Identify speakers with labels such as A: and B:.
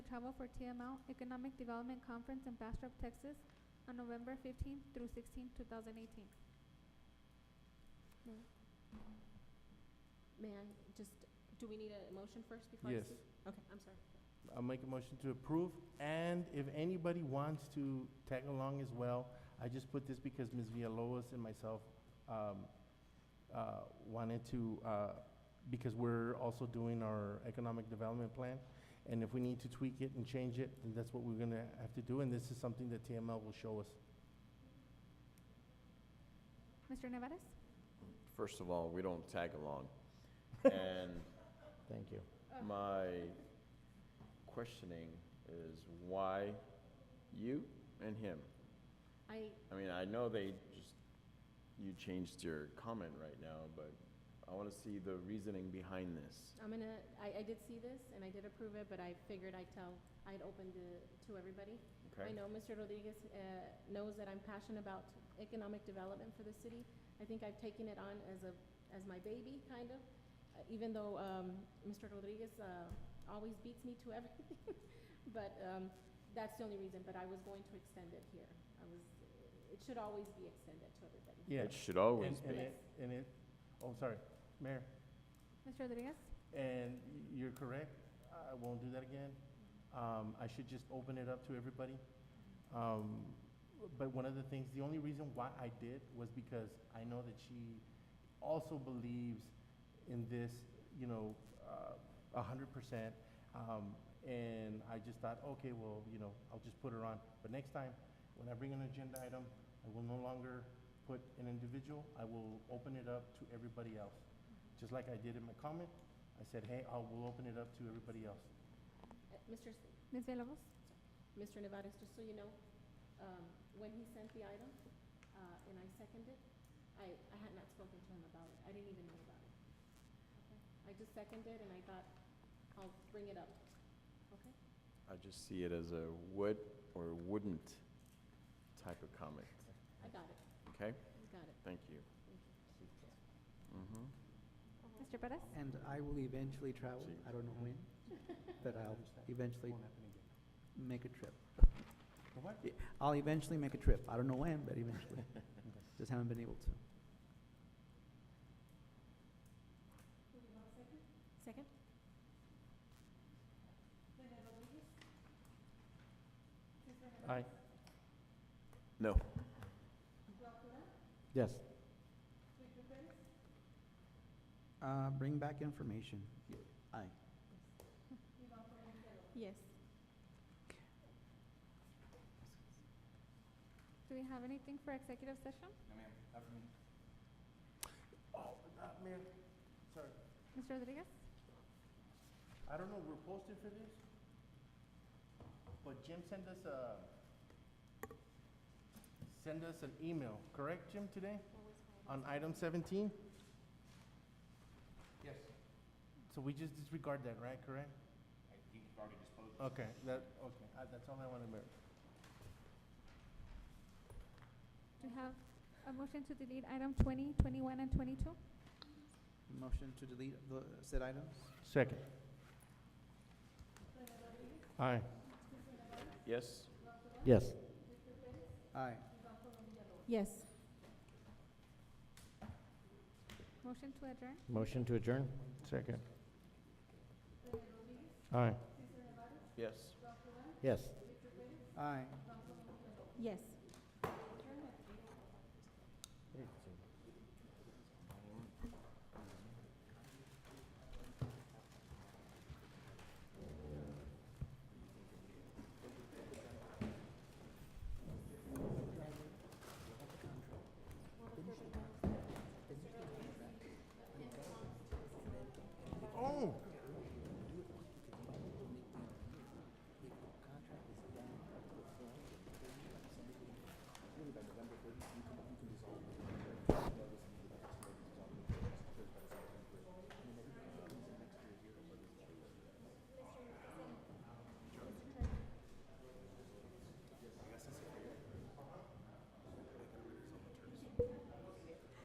A: travel for TML Economic Development Conference in Bastrop, Texas on November fifteenth through sixteenth, two thousand eighteen.
B: Mm-hmm. May I just, do we need a motion first before I
C: Yes.
B: speak? Okay, I'm sorry.
C: I'll make a motion to approve, and if anybody wants to tag along as well, I just put this because Ms. Villalobos and myself um, uh, wanted to, uh, because we're also doing our economic development plan, and if we need to tweak it and change it, then that's what we're gonna have to do, and this is something that TML will show us.
A: Mr. Nevares?
D: First of all, we don't tag along. And
C: Thank you.
D: Uh, my questioning is why you and him?
B: I,
D: I mean, I know they just, you changed your comment right now, but I want to see the reasoning behind this.
B: I'm gonna, I, I did see this and I did approve it, but I figured I'd tell, I'd open the, to everybody. I
D: Okay?
B: know Mr. Rodriguez uh, knows that I'm passionate about economic development for the city. I think I've taken it on as a, as my baby, kind of, uh, even though um, Mr. Rodriguez uh, always beats me to everything. But um, that's the only reason, but I was going to extend it here. I was, it should always be extended to everybody.
C: Yeah.
D: It should always
C: And- and
D: be.
C: it- And it, oh, sorry, Mayor,
A: Mr. Rodriguez?
C: and y- you're correct, I won't do that again. Um, I should just open it up to everybody. Um, but one of the things, the only reason why I did was because I know that she also believes in this, you know, uh, a hundred percent. Um, and I just thought, okay, well, you know, I'll just put her on. But next time, when I bring an agenda item, I will no longer put an individual, I will open it up to everybody else. Just like I did in my comment, I said, hey, I will open it up to everybody else.
B: Uh, Mr. S-
A: Ms. Villalobos?
B: Mr. Nevares, just so you know, um, when he sent the item, uh, and I seconded, I, I had not spoken to him about it, I didn't even know about it. Okay. I just seconded and I thought, I'll bring it up, okay?
D: I just see it as a would or wouldn't type of comment.
B: I got it,
D: Okay?
B: got it,
D: Thank you.
B: thank you.
D: Mhm.
A: Mr. Perez?
E: And I will eventually travel,
D: Gee.
E: I don't know when, but
C: Oh.
E: I'll eventually
C: Won't happen again.
E: make a trip.
C: The what?
E: I'll eventually make a trip, I don't know when, but eventually. Just haven't been able to.
B: Second?
C: Aye.
D: No.
C: Yes.
E: Uh, Bring back information. Aye.
B: Yes.
A: Do we have anything for executive session?
C: Oh, uh, Mayor, sorry.
A: Mr. Rodriguez?
C: I don't know, we're posted for this, but Jim sent us a, send us an email, correct, Jim, today? On item seventeen? Yes. So we just disregard that, right, correct?
F: I think you've already disposed of
C: Okay, that, okay, I- that's all I want to know.
A: Do we have a motion to delete item 20, 21, and twenty-two?
E: Motion to delete the said items?
C: Second. Aye.
D: Yes?
C: Yes.
E: Aye.
B: Yes.
A: Motion to adjourn?
C: Motion to adjourn? Second. Aye.
D: Yes.
C: Yes.
E: Aye.
B: Yes.